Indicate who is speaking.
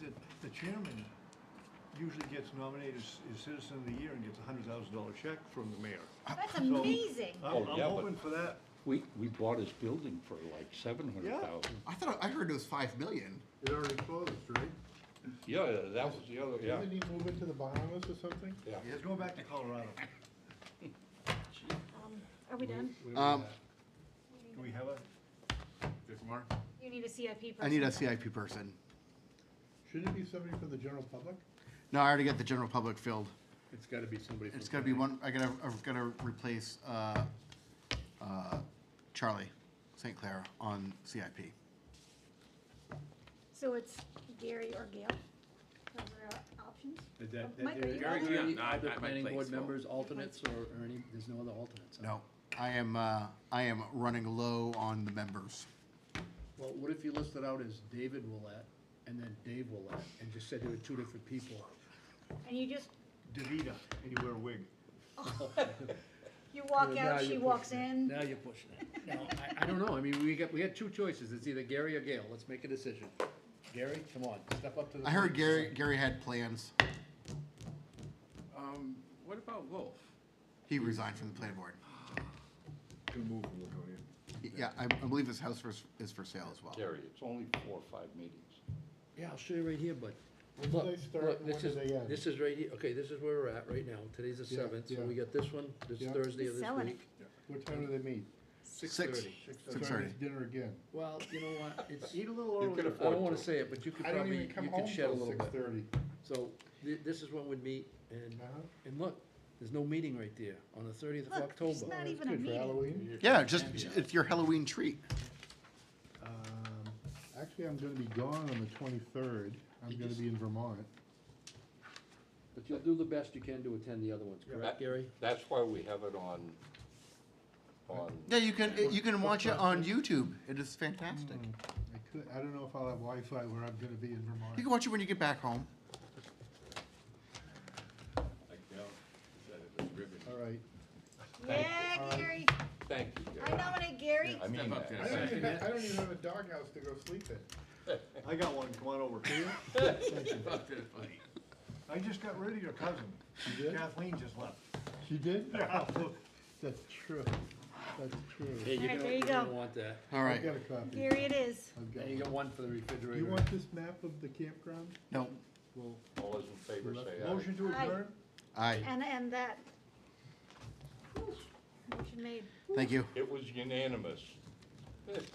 Speaker 1: chairman usually gets nominated as as Citizen of the Year and gets a hundred thousand dollar check from the mayor.
Speaker 2: That's
Speaker 1: So-
Speaker 2: amazing.
Speaker 1: I'm,
Speaker 3: Oh,
Speaker 1: I'm
Speaker 3: yeah, but-
Speaker 1: hoping for that.
Speaker 3: We, we bought his building for like seven hundred thousand.
Speaker 4: I thought, I heard it was five million.
Speaker 5: It already closed, right?
Speaker 3: Yeah, that was the other, yeah,
Speaker 5: Didn't he move into the Bahamas or something?
Speaker 3: yeah.
Speaker 1: He's going back to Colorado.
Speaker 2: Um, Are we done?
Speaker 4: Um,
Speaker 1: Do we have a?
Speaker 2: You need a CIP person.
Speaker 4: I need a CIP person.
Speaker 5: Shouldn't it be somebody from the general public?
Speaker 4: No, I already got the general public filled.
Speaker 5: It's gotta be somebody from.
Speaker 4: It's gonna be one, I gotta, I've gotta replace, uh, uh, Charlie St. Clair on CIP.
Speaker 2: So it's Gary or Gail? Those are our options?
Speaker 5: Is that-
Speaker 2: Oh, Mike,
Speaker 5: that-
Speaker 2: are you
Speaker 6: Uh, Gary,
Speaker 2: on
Speaker 6: do
Speaker 2: there?
Speaker 6: you
Speaker 7: Yeah,
Speaker 6: have any
Speaker 7: no, I-
Speaker 6: other
Speaker 7: I might
Speaker 6: planning
Speaker 7: play
Speaker 6: board
Speaker 7: as well.
Speaker 6: members, alternates, or, or any, there's no other alternates? huh?
Speaker 4: No, I am, uh, I am running low on the members.
Speaker 6: Well, what if you listed out as David Willett and then Dave Willett, and just said there were two different people?
Speaker 2: And you just,
Speaker 1: Davida, and you wear a wig.
Speaker 2: you walk
Speaker 6: Now
Speaker 2: out, she
Speaker 6: you're
Speaker 2: walks
Speaker 6: pushing it.
Speaker 2: in.
Speaker 6: Now you're pushing it. No, I, I don't know, I mean, we got, we had two choices, it's either Gary or Gail, let's make a decision. Gary, come on, step up to the.
Speaker 4: I heard
Speaker 6: plate.
Speaker 4: Gary, Gary had plans.
Speaker 7: Um, what about Wolf?
Speaker 4: He resigned from the planning board.
Speaker 1: Gonna move from Laconia.
Speaker 4: Y- Yeah, I, I believe his house is- is for sale as well.
Speaker 3: Gary, it's only four or five meetings.
Speaker 6: Yeah, I'll show you right here, bud.
Speaker 5: When do
Speaker 6: Look,
Speaker 5: they start
Speaker 6: look,
Speaker 5: and
Speaker 6: this
Speaker 5: when
Speaker 6: is-
Speaker 5: do they end?
Speaker 6: This is right here, okay, this is where we're at right now, today's the
Speaker 5: Yeah,
Speaker 6: seventh, so
Speaker 5: yeah.
Speaker 6: we got this one, this
Speaker 5: Yeah.
Speaker 6: Thursday
Speaker 2: He's
Speaker 6: of this
Speaker 2: selling it.
Speaker 6: week.
Speaker 5: What time do they meet?
Speaker 4: Six,
Speaker 6: 6:30.
Speaker 4: six
Speaker 5: Start
Speaker 4: thirty.
Speaker 5: his Dinner again.
Speaker 6: Well, you know what, it's, eat a little
Speaker 3: You could
Speaker 6: earlier, I
Speaker 3: afford
Speaker 6: don't wanna
Speaker 3: to.
Speaker 6: say it, but you could
Speaker 5: I don't
Speaker 6: probably,
Speaker 5: even
Speaker 6: you
Speaker 5: come
Speaker 6: could
Speaker 5: home
Speaker 6: shed a
Speaker 5: till
Speaker 6: little
Speaker 5: six
Speaker 6: bit.
Speaker 5: thirty.
Speaker 6: So, thi- this is when we'd meet, and,
Speaker 5: Uh-huh.
Speaker 6: and look, there's no meeting right there, on the thirtieth of
Speaker 2: Look,
Speaker 6: October.
Speaker 2: there's not even a
Speaker 5: Good for
Speaker 2: meeting.
Speaker 5: Halloween.
Speaker 4: Yeah, just, it's your Halloween treat.
Speaker 5: Um, Actually, I'm gonna be gone on the twenty-third. I'm gonna be in Vermont.
Speaker 6: But you'll do the best you can to attend the other ones, correct,
Speaker 3: That-
Speaker 6: Gary?
Speaker 3: That's why we have it on, on,
Speaker 4: Yeah, you can, you can watch it on YouTube. It is fantastic.
Speaker 5: I could, I don't know if I'll have Wi-Fi where I'm gonna be in Vermont.
Speaker 4: You can watch it when you get back home.
Speaker 5: All right.
Speaker 2: Yeah, Gary.
Speaker 3: thank you,
Speaker 2: I
Speaker 3: Gary.
Speaker 2: nominate Gary.
Speaker 3: I mean
Speaker 7: Step up
Speaker 3: that.
Speaker 7: there.
Speaker 5: don't even, have- I don't even have a doghouse to go sleep in.
Speaker 1: I got one, come on over.
Speaker 7: Fuck that funny.
Speaker 1: I just got rid of your cousin.
Speaker 5: You did?
Speaker 1: Kathleen just left.
Speaker 5: She did?
Speaker 1: That's
Speaker 5: That's true. That's
Speaker 6: Yeah,
Speaker 5: true.
Speaker 6: you're
Speaker 2: Alright,
Speaker 6: gonna,
Speaker 2: there you
Speaker 6: you're gonna
Speaker 2: go.
Speaker 6: want that.
Speaker 4: All
Speaker 5: I've
Speaker 4: right.
Speaker 5: got a copy.
Speaker 2: Gary it is.
Speaker 5: I've got
Speaker 6: And you
Speaker 5: one.
Speaker 6: got one for the refrigerator.
Speaker 5: You want this map of the campground?
Speaker 4: No,
Speaker 5: Well,
Speaker 3: All those in favor say aye.
Speaker 1: Motion to
Speaker 2: Aye.
Speaker 1: adjourn?
Speaker 4: aye.
Speaker 2: And, and that. Whew, Motion made.
Speaker 4: Thank you.
Speaker 3: It was unanimous.